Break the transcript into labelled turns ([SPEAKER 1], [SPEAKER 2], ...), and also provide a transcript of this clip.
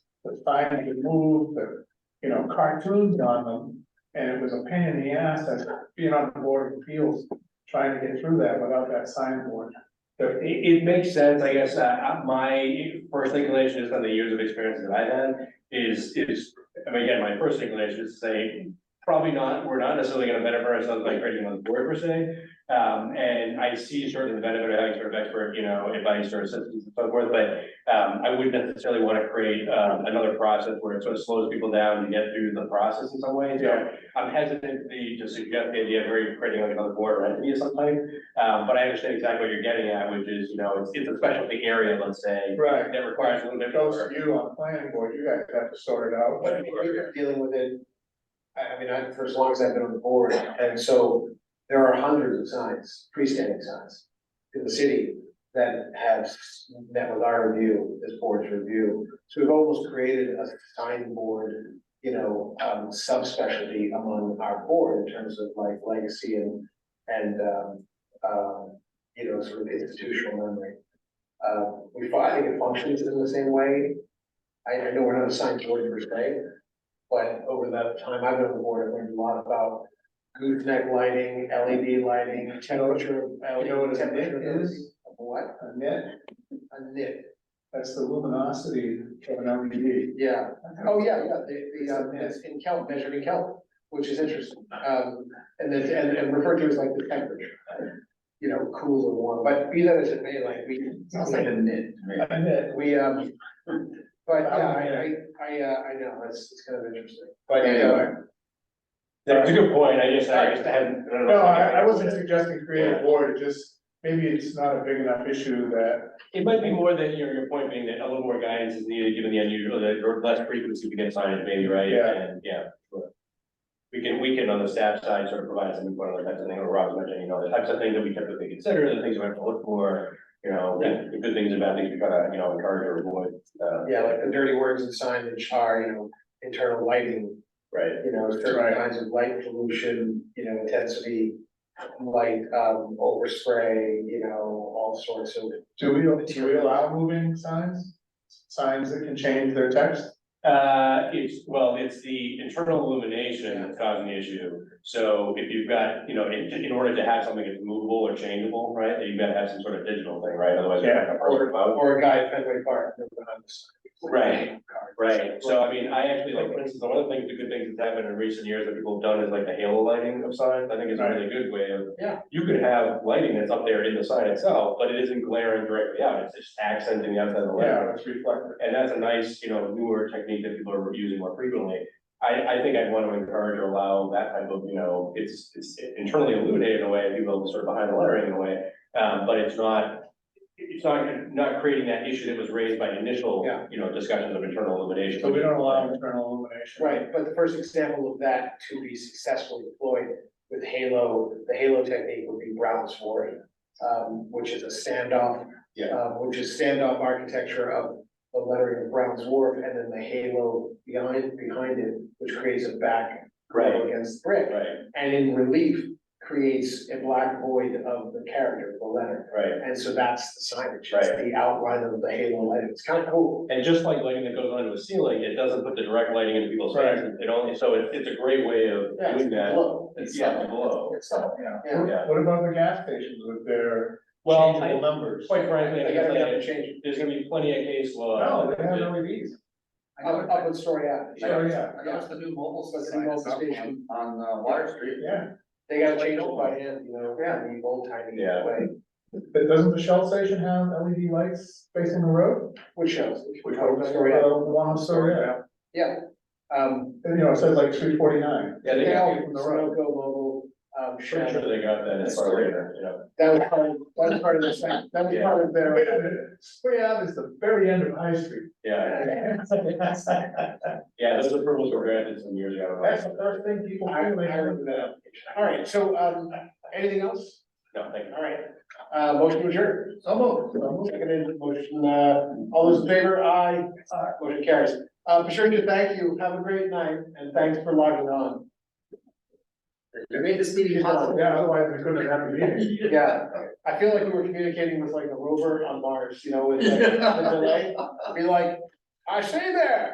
[SPEAKER 1] was trying to move the, you know, cartoons on them. And it was a pain in the ass, as being on the board of appeals, trying to get through that without that signboard.
[SPEAKER 2] So it, it makes sense, I guess, uh, uh, my first inclination is on the years of experience that I've had is, is, I mean, again, my first inclination is to say, probably not, we're not necessarily gonna benefit ourselves by creating another board per se. Um, and I see sort of the benefit of having sort of expert, you know, advice or assistance and so forth, but, um, I wouldn't necessarily wanna create, um, another process where it sort of slows people down to get through the process in some ways. So I'm hesitant to to suggest the idea of really creating like another board or entity of some type. Um, but I understand exactly what you're getting at, which is, you know, it's, it's a specialty area, let's say,
[SPEAKER 1] Right.
[SPEAKER 2] that requires a little bit
[SPEAKER 1] Those
[SPEAKER 2] more.
[SPEAKER 1] of you on planning board, you guys have to sort it out.
[SPEAKER 3] But I mean, you've been dealing with it, I, I mean, I, for as long as I've been on the board, and so there are hundreds of signs, freestanding signs in the city that have met with our review, this board's review. So we've almost created a sign board, you know, um, subspecialty among our board in terms of like legacy and, and, um, um, you know, sort of institutional memory. Uh, we, fi- I think it functions in the same way. I, I know we're not a sign board per se, but over that time I've been on the board, I've learned a lot about gooseneck lighting, LED lighting, temperature. uh,
[SPEAKER 1] You know what a
[SPEAKER 3] temperature-
[SPEAKER 1] nit is?
[SPEAKER 3] What?
[SPEAKER 1] A nit,
[SPEAKER 3] A nit,
[SPEAKER 1] that's the luminosity of an E LED.
[SPEAKER 3] yeah. Oh, yeah, yeah, the, the, um,
[SPEAKER 1] Yeah.
[SPEAKER 3] it's in kelp, measured in kelp, which is interesting, um, and then, and, and referred to as like the temperature. You know, cool or warm, but be that as it may, like, we. Sounds like a nit.
[SPEAKER 1] A nit,
[SPEAKER 3] We, um, but, Oh, yeah, I, I, I, uh, I know, it's, it's kind of interesting, but,
[SPEAKER 1] Anyway.
[SPEAKER 3] uh,
[SPEAKER 2] That's a good point, I guess, I just hadn't. don't know.
[SPEAKER 1] No, I, I wasn't suggesting creating a board, it just, maybe it's not a big enough issue that,
[SPEAKER 2] It might be more that your, your point being that a little more guidance is needed, given the unusual, the or less frequency we get signed, maybe, right?
[SPEAKER 1] Yeah.
[SPEAKER 2] And, yeah. sure. We can, we can on the staff side sort of provide some input on the types of things, or Rob's mentioned, you know, the types of things that we typically consider, the things we have to look for. You know, the good things and bad things we try to, you know, encourage or avoid, uh,
[SPEAKER 3] yeah, like the dirty words and signage are, you know, internal lighting.
[SPEAKER 2] right?
[SPEAKER 3] you know,
[SPEAKER 1] Right.
[SPEAKER 3] certain kinds of light pollution, you know, intensity, light, um, overspray, you know, all sorts of.
[SPEAKER 1] do we, do we allow moving signs? Signs that can change their text?
[SPEAKER 2] Uh, it's, well, it's the internal illumination that's causing the issue. So if you've got, you know, in, in order to have something that's movable or changeable, right, then you've got to have some sort of digital thing, right? Otherwise, you're not gonna
[SPEAKER 3] Or,
[SPEAKER 2] work out.
[SPEAKER 3] or a guy at Fenway Park. you know, behind the sign.
[SPEAKER 2] Right, Right, so I mean, I actually like, for instance, one of the things, the good things that's happened in recent years that people have done is like the halo lighting of signs, I think is a really good way of.
[SPEAKER 3] Yeah.
[SPEAKER 2] You could have lighting that's up there in the sign itself, but it isn't glaring directly out, it's just accenting the outside of the light.
[SPEAKER 1] Yeah, it's reflective.
[SPEAKER 2] And that's a nice, you know, newer technique that people are using more frequently. I, I think I'd want to encourage or allow that type of, you know, it's, it's internally illuminated in a way, people are sort of behind the lettering in a way. Um, but it's not, it's not, not creating that issue that was raised by initial,
[SPEAKER 3] Yeah.
[SPEAKER 2] you know, discussions of internal illumination.
[SPEAKER 1] So we don't allow internal illumination.
[SPEAKER 3] Right, but the first example of that to be successfully deployed with Halo, the Halo technique would be Brown's Quarry, um, which is a standoff.
[SPEAKER 2] Yeah.
[SPEAKER 3] uh, which is standoff architecture of the lettering of Brown's Wharf and then the Halo behind, behind it, which creates a back.
[SPEAKER 2] Right,
[SPEAKER 3] Against brick.
[SPEAKER 2] right,
[SPEAKER 3] and in relief creates a black void of the character, the letter.
[SPEAKER 2] right.
[SPEAKER 3] And so that's the signage, it's the outline of the halo light, it's kind of cool.
[SPEAKER 2] And just like lighting that goes onto a ceiling, it doesn't put the direct lighting into people's faces. It only, so it's, it's a great way of
[SPEAKER 3] Yeah,
[SPEAKER 2] doing that.
[SPEAKER 3] glow.
[SPEAKER 2] It's yeah, glow.
[SPEAKER 3] It's
[SPEAKER 4] uh,
[SPEAKER 3] subtle.
[SPEAKER 1] Yeah.
[SPEAKER 3] Yeah.
[SPEAKER 2] Yeah.
[SPEAKER 1] What about the gas stations with their
[SPEAKER 2] Well,
[SPEAKER 1] changeable
[SPEAKER 2] I-
[SPEAKER 1] numbers? Uh,
[SPEAKER 2] quite frankly, I
[SPEAKER 3] They
[SPEAKER 2] guess
[SPEAKER 3] gotta be able
[SPEAKER 2] I-
[SPEAKER 3] to change it.
[SPEAKER 2] there's gonna be plenty of case law.
[SPEAKER 1] No, they have E LEDs.
[SPEAKER 3] Up, up in Story Ave.
[SPEAKER 1] Sure, yeah,
[SPEAKER 4] I noticed the new mobile
[SPEAKER 3] That's the
[SPEAKER 4] station
[SPEAKER 3] mobile station.
[SPEAKER 4] on uh, Water Street.
[SPEAKER 1] yeah.
[SPEAKER 3] They gotta change it by hand, you know, in the old tiny
[SPEAKER 2] Yeah.
[SPEAKER 3] way,
[SPEAKER 1] But doesn't the Shell station have LED lights facing the road?
[SPEAKER 3] which shows.
[SPEAKER 1] Uh,
[SPEAKER 3] Story Ave.
[SPEAKER 1] The one on Story Ave.
[SPEAKER 3] Yeah, um,
[SPEAKER 1] And, you know, it says like three forty-nine.
[SPEAKER 2] Yeah, they
[SPEAKER 3] they
[SPEAKER 2] got,
[SPEAKER 3] all,
[SPEAKER 2] I'm
[SPEAKER 1] from the road.
[SPEAKER 3] Sunoco mobile, um,
[SPEAKER 2] sure
[SPEAKER 3] Shell.
[SPEAKER 2] they got that as far later, you know.
[SPEAKER 3] that was part of, that was part of the, sec- that was part of
[SPEAKER 1] Wait
[SPEAKER 3] their.
[SPEAKER 1] a minute, Story Ave is the very end of High Street.
[SPEAKER 2] Yeah, yeah, those approvals were granted some years ago.
[SPEAKER 1] That's the first thing people
[SPEAKER 3] I, I
[SPEAKER 1] do, they have
[SPEAKER 3] remember that application. All right, so, um, anything else?
[SPEAKER 2] No, thank you.
[SPEAKER 3] All right, uh, motion to adjourn. So moved. Seconded, motion, uh, all those in favor, aye, Aye. motion carries. Uh, Patricia, thank you, have a great night, and thanks for logging on.
[SPEAKER 4] You made this meeting possible.
[SPEAKER 1] Yeah, otherwise we couldn't have a meeting.
[SPEAKER 3] Yeah, I feel like we were communicating with like a rover on Mars, you know, with like, the delay, be like, I stay there.